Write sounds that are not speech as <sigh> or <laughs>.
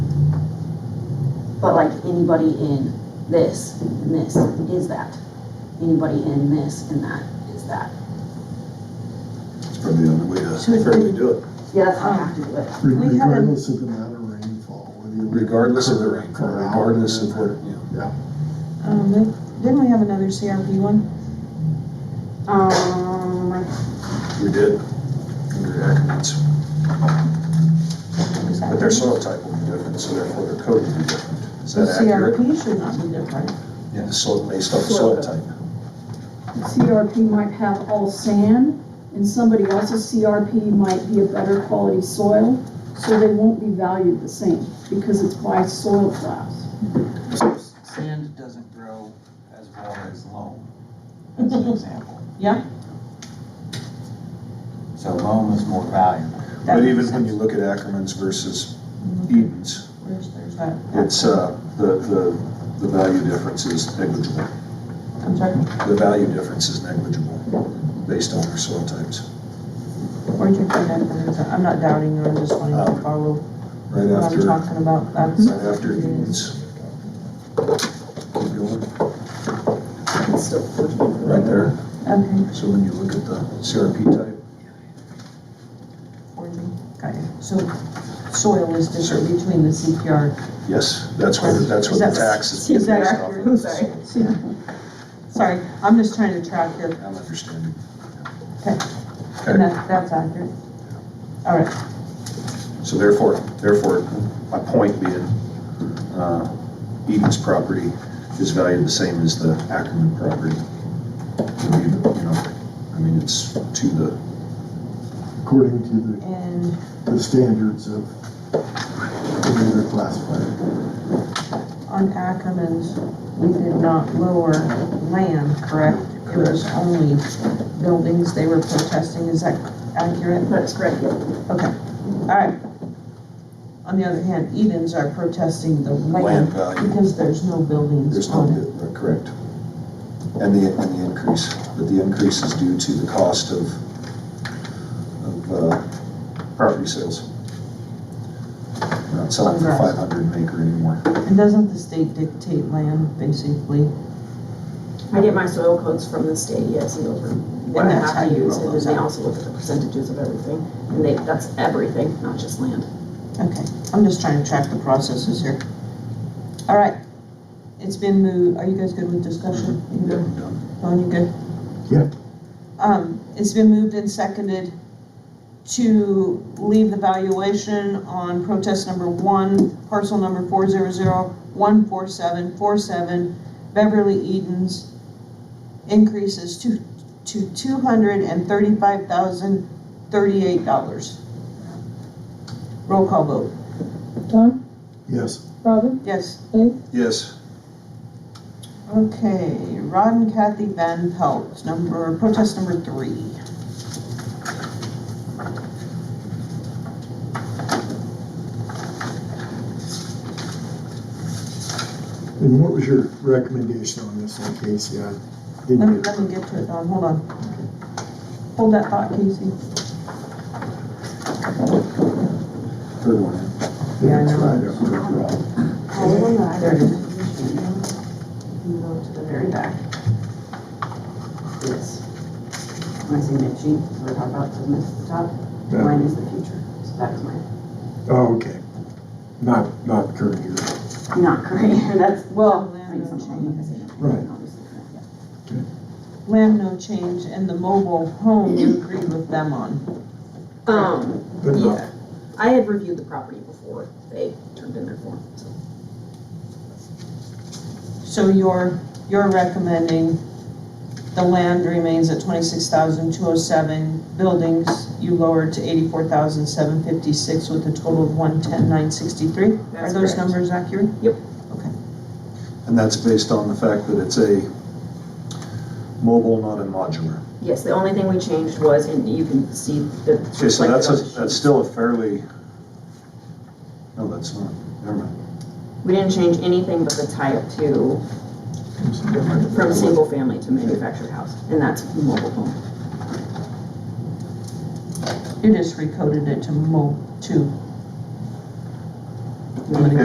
But like anybody in this and this is that. Anybody in this and that is that. It's probably the only way uh, to So it's fairly do it. Yeah, that's how I have to do it. We had a- Regardless of the amount of rainfall, whether you. Regardless of the rainfall, regardless of what, you know. Mm-hmm. Um, then- didn't we have another CRP one? Um, I We did. Under acronyms. Is that- But their soil type will be different, so therefore their code will be different. Is The that accurate? CRP should not be different. Yeah, the soil, based off the soil type. The CRP might have all sand, and somebody else's CRP might be a better quality soil, so they won't be valued the same, because it's by soil class. Sand doesn't grow as well as loam, as an example. Yeah. So loam is more valuable. That But makes even when sense. you look at acronyms versus Edens, Where's, there's that? it's, uh, the, the, the value difference is negligible. I'm sorry, The value difference is negligible based on their soil types. where'd you find that? Where is that? I'm not doubting you, I'm just wanting to follow Oh, Right what I'm after, Mm-hmm. talking about. That's, right after Edens. Keep going. Right there. okay, So when you look at the CRP type, where'd you, got it. So soil is different between the CPR. Yes, that's what, that's what the Is that- tax is based is that off accurate? of. Sorry. Sorry, I'm just trying to track here, I'm understanding. and that, that's accurate. All right, So therefore, therefore, my point being, uh, Eden's property is valued the same as the Ackerman property. Or even, You know, I mean, it's to the, According to and the, the standards of the way they're classified. On Ackerman's, we did not lower land, correct? It was only buildings they were protesting, is that accurate? That's correct. Alright. On the other hand, Edens are protesting the land land value. because there's no buildings There's no, on it. uh, correct. And the, and the increase, but the increase is due to the cost of, of, uh, property sales. Not selling for five Congrats. hundred an acre anymore. And doesn't the state dictate land, basically? I get my soil codes from the state, yes, and those are what I And that's how have to you use, roll and those then they out. also look at the percentages of everything, and they, that's everything, not just land. Okay, I'm just trying to track the processes here. Alright, it's been moved, are you guys good with discussion? You good? Dawn, you good? Yeah. Um, it's been moved and seconded to leave the valuation on protest number one, parcel number four zero zero one four seven four seven, Beverly Edens, increases to, to two hundred and thirty-five thousand thirty-eight dollars. Roll call vote, Don, Yes, Robin, yes. Yes. Okay, Rod and Kathy Van Pelt, number, protest number three. and what was your recommendation on this one, Casey? I Let me, didn't get, let me get to it, Don, hold on. Hold that thought, Casey. Third one. Yeah, I that's know. right, after Rob. There it is. You go to the very back. Yes. When I say mid-sheet, we're talking about the top, Yeah. mine is the future, so that is mine. Oh, okay. Not, not current year. Not current, <laughs> that's, well, I Land mean, some of them, I say not current, Right. obviously, yeah. Land no change and the mobile home, you agreed with them on. Um, But not- yeah, I had reviewed the property before they turned in their form, so. So you're, you're recommending the land remains at twenty-six thousand two oh seven, buildings you lowered to eighty-four thousand seven fifty-six with a total of one-ten nine sixty-three? Are That's those correct. numbers accurate? And that's based on the fact that it's a mobile, not a modular. Yes, the only thing we changed was, and you can see that. it's Okay, so reflected on the that's, a sheet. that's still a fairly, no, that's not, never mind. We didn't change anything but the type to, from single family to manufactured house, and that's mobile home. You just recoded it to mo, to